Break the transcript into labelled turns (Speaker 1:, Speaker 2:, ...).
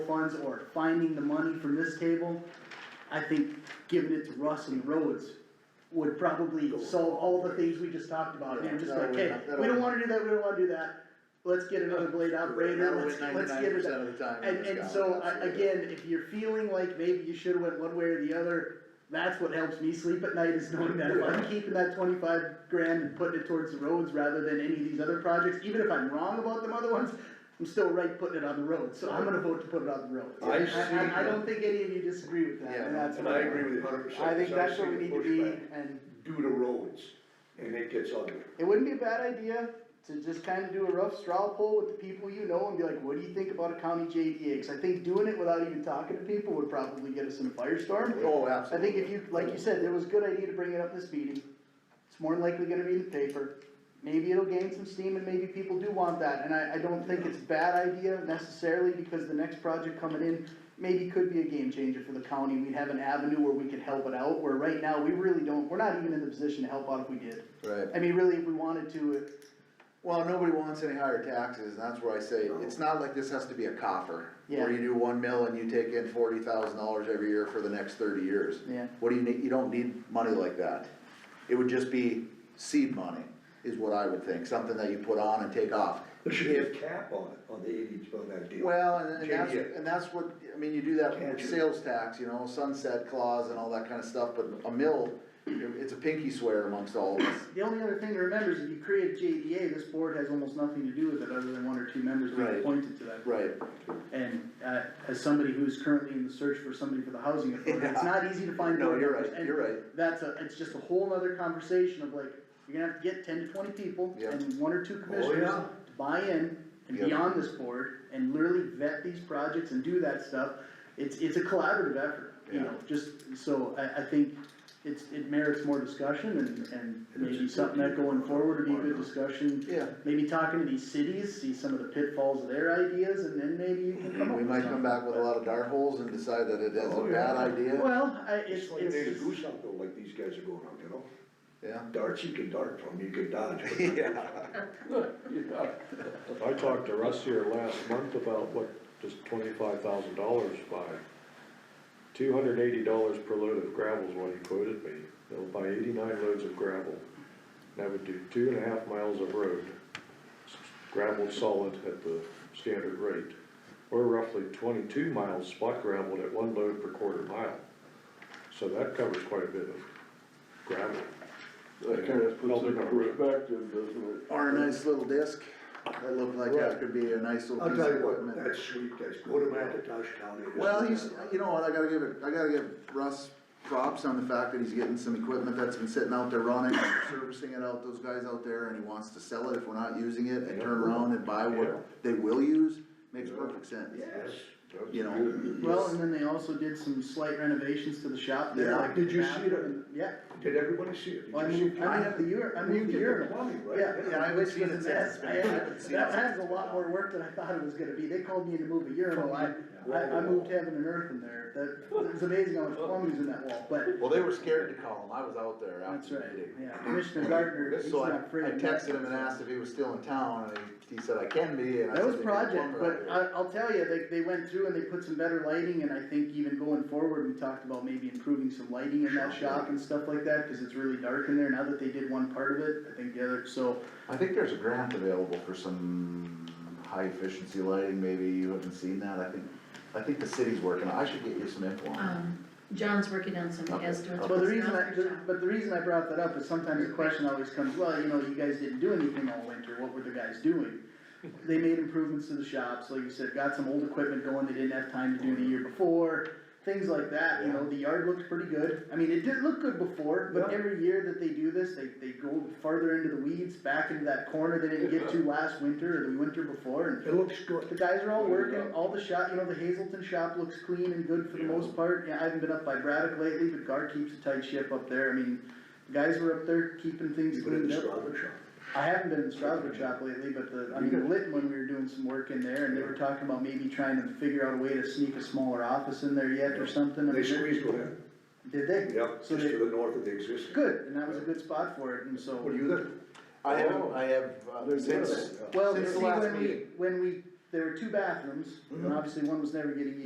Speaker 1: funds or finding the money from this table, I think giving it to Russ and Rhodes would probably solve all the things we just talked about,
Speaker 2: Yeah,
Speaker 1: and just
Speaker 2: that'll
Speaker 1: like,
Speaker 2: win-
Speaker 1: hey,
Speaker 2: that'll
Speaker 1: we don't
Speaker 2: win.
Speaker 1: wanna do that, we don't wanna do that, let's get another blade
Speaker 2: That
Speaker 1: operator, let's,
Speaker 2: was
Speaker 1: let's
Speaker 2: ninety-nine
Speaker 1: get it.
Speaker 2: percent of the time. in
Speaker 1: And,
Speaker 2: this
Speaker 1: and
Speaker 2: town,
Speaker 1: so, I,
Speaker 2: absolutely.
Speaker 1: again, if you're feeling like maybe you should've went one way or the other, that's what helps me sleep at night is knowing that if I'm keeping that twenty-five grand and putting it towards the roads rather than any of these other projects, even if I'm wrong about them other ones, I'm still right putting it on the road, so I'm gonna vote to put it on the road.
Speaker 3: I see
Speaker 1: I, I don't think any of you disagree with that, and
Speaker 2: Yeah,
Speaker 1: that's.
Speaker 3: And
Speaker 1: what
Speaker 3: I agree with you hundred percent.
Speaker 1: I think that's what we need to be, and
Speaker 3: Do to roads, and it gets ugly.
Speaker 1: it wouldn't be a bad idea to just kind of do a rough straw poll with the people you know and be like, what do you think about a county JDA? Cause I think doing it without even talking to people would probably get us in a firestorm.
Speaker 2: Oh,
Speaker 1: I
Speaker 2: absolutely.
Speaker 1: think if you, like you said, it was a good idea to bring it up this meeting. It's more than likely gonna be in the paper. Maybe it'll gain some steam and maybe people do want that. And I, I don't think it's a bad idea necessarily because the next project coming in maybe could be a game changer for the county. We'd have an avenue where we could help it out, where right now we really don't, we're not even in the position to help out if we did.
Speaker 2: Right.
Speaker 1: I mean, really, if we wanted to, it-
Speaker 2: Well, nobody wants any higher taxes, and that's where I say, it's not like this has to be a coffer.
Speaker 1: Yeah.
Speaker 2: Where you do one mill and you take in forty thousand dollars every year for the next thirty years.
Speaker 1: Yeah.
Speaker 2: What do you need, you don't need money like that. It would just be seed money, is what I would think, something that you put on and take off.
Speaker 3: There should be a
Speaker 2: If-
Speaker 3: cap on it, on the eighty, on that deal.
Speaker 2: Well, and and that's,
Speaker 3: JDA.
Speaker 2: and that's what, I mean, you do that with
Speaker 3: Catch it.
Speaker 2: sales tax, you know, sunset clause and all that kinda stuff, but a mill, it's a pinky swear amongst all of us.
Speaker 1: The only other thing to remember is if you create a JDA, this board has almost nothing to do with it other than one or two members being
Speaker 2: Right.
Speaker 1: appointed to that.
Speaker 2: Right,
Speaker 1: And, uh, as somebody who's currently in the search for somebody for the housing authority, it's not easy to find
Speaker 2: No,
Speaker 1: board
Speaker 2: you're
Speaker 1: members.
Speaker 2: right,
Speaker 1: And
Speaker 2: you're right.
Speaker 1: That's a, it's just a whole nother conversation of like, you're gonna have to get ten to twenty people
Speaker 2: Yeah. Oh,
Speaker 1: and one or two commissioners
Speaker 3: yeah.
Speaker 1: to buy in and be
Speaker 2: Yeah.
Speaker 1: on this board and literally vet these projects and do that stuff. It's, it's a collaborative effort, you
Speaker 2: Yeah.
Speaker 1: know, just, so I, I think it's, it merits more discussion and, and maybe something that going forward would be a good discussion.
Speaker 2: yeah.
Speaker 1: Maybe talking to these cities, see some of the pitfalls of their ideas, and then maybe you can come up
Speaker 2: Mm-hmm. We
Speaker 1: with
Speaker 2: might
Speaker 1: something.
Speaker 2: come back with a lot of dart holes and decide that it is a
Speaker 3: Oh,
Speaker 2: bad
Speaker 3: yeah.
Speaker 2: idea,
Speaker 1: Well, I, it's,
Speaker 3: It's like they to
Speaker 1: it's,
Speaker 3: goose out though, like these guys are going out, you know?
Speaker 2: yeah.
Speaker 3: Darts, you can dart from, you can dodge. but-
Speaker 4: I talked to Russ here last month about what does twenty-five thousand dollars buy? Two hundred eighty dollars per load of gravel is what he quoted me. They'll buy eighty-nine loads of gravel. That would do two and a half miles of road, s- gravel solid at the standard rate, or roughly twenty-two miles spot gravelled at one load per quarter mile. So that covers quite a bit of gravel.
Speaker 5: That kind of puts it in perspective, doesn't it?
Speaker 2: Or a nice little disc, that looked like that could be a nice little
Speaker 3: I'll
Speaker 2: piece of
Speaker 3: tell you what,
Speaker 2: equipment.
Speaker 3: that sweep that's going to McIntosh County. is-
Speaker 2: Well, he's, you know what, I gotta give it, I gotta give Russ props on the fact that he's getting some equipment that's been sitting out there running, servicing it out, those guys out there, and he wants to sell it if we're not using it, and turn around and buy
Speaker 4: Yeah.
Speaker 2: what they will use, makes perfect sense.
Speaker 3: Yes. that's
Speaker 2: You know.
Speaker 3: good.
Speaker 1: well, and then they also did some slight renovations to the shop there,
Speaker 3: Yeah.
Speaker 1: like.
Speaker 3: Did you
Speaker 1: the
Speaker 3: see that?
Speaker 1: bathroom. Yeah,
Speaker 3: Did everybody see it? Did
Speaker 1: well, I
Speaker 3: you see
Speaker 1: moved,
Speaker 3: it?
Speaker 1: I moved the ur, I
Speaker 3: You
Speaker 1: moved the
Speaker 3: did the
Speaker 1: urinal.
Speaker 3: plumbing, right?
Speaker 1: Yeah,
Speaker 2: Yeah, I haven't
Speaker 1: which
Speaker 2: seen
Speaker 1: was
Speaker 2: it
Speaker 1: a mess.
Speaker 2: since.
Speaker 1: I had-
Speaker 2: I haven't seen it
Speaker 1: That has a
Speaker 2: since.
Speaker 1: lot more work than I thought it was gonna be, they called me in to move a urinal, I, I, I moved heaven and earth in there, that, it's amazing how much plumbing's in that wall, but.
Speaker 2: Well, they were scared to call him, I was out there
Speaker 1: That's
Speaker 2: after the
Speaker 1: right,
Speaker 2: meeting.
Speaker 1: yeah, Commissioner Gardner, he's
Speaker 2: So I,
Speaker 1: not afraid
Speaker 2: I
Speaker 1: of
Speaker 2: texted
Speaker 1: that.
Speaker 2: him and asked if he was still in town, and he, he said, I can be, and I
Speaker 1: That
Speaker 2: said.
Speaker 1: was
Speaker 2: "They need a
Speaker 1: project,
Speaker 2: plumber out
Speaker 1: but
Speaker 2: here."
Speaker 1: I, I'll tell you, they, they went through and they put some better lighting, and I think even going forward, we talked about maybe improving some lighting in that shop and stuff like that, cause it's really dark in there, now that they did one part of it, I think the other, so.
Speaker 2: I think there's a grant available for some high efficiency lighting, maybe you haven't seen that, I think, I think the city's working, on it. I should get you some info on
Speaker 6: Um, John's working on some
Speaker 2: Okay.
Speaker 6: estimates.
Speaker 1: Well, the
Speaker 6: for
Speaker 1: reason I,
Speaker 6: John's
Speaker 1: the-
Speaker 6: shop.
Speaker 1: but the reason I brought that up is sometimes the question always comes, well, you know, you guys didn't do anything all winter, what were the guys doing? They made improvements to the shops, like you said, got some old equipment going they didn't have time to do the year before, things like that, you know, the yard looked pretty good. I mean, it did look good before, but
Speaker 3: Yeah.
Speaker 1: every year that they do this, they, they go farther into the weeds, back into that corner they didn't get to last winter or the winter before, and
Speaker 3: It looks
Speaker 1: the
Speaker 3: good.
Speaker 1: guys are all working, all the shop, you know, the Hazelton shop looks clean and good for the most part, yeah, I haven't been up by Braddock lately, but Gar keeps a tight ship up there, I mean, the guys were up there keeping things
Speaker 3: You put it in
Speaker 1: cleaned
Speaker 3: the
Speaker 1: up.
Speaker 3: strawberry shop.
Speaker 1: I haven't been in the Strasburg shop lately, but the, I mean, Litton, when we were doing some work in there, and they were talking about maybe trying to figure out a way to sneak a smaller office in there yet or something. I
Speaker 3: They
Speaker 1: mean,
Speaker 3: squeezed one in.
Speaker 1: Did they?
Speaker 3: Yeah, just
Speaker 1: So they,
Speaker 3: to the north of the existing.
Speaker 1: good, and that was a good spot for it, and so.
Speaker 3: What do you think?
Speaker 2: it. I have, I have, uh, since,
Speaker 3: Yeah.
Speaker 1: Well,
Speaker 2: since
Speaker 1: see,
Speaker 2: the last
Speaker 1: when we,
Speaker 2: meeting.
Speaker 3: Mm-hmm.
Speaker 1: when we, there were two bathrooms, and obviously one was never getting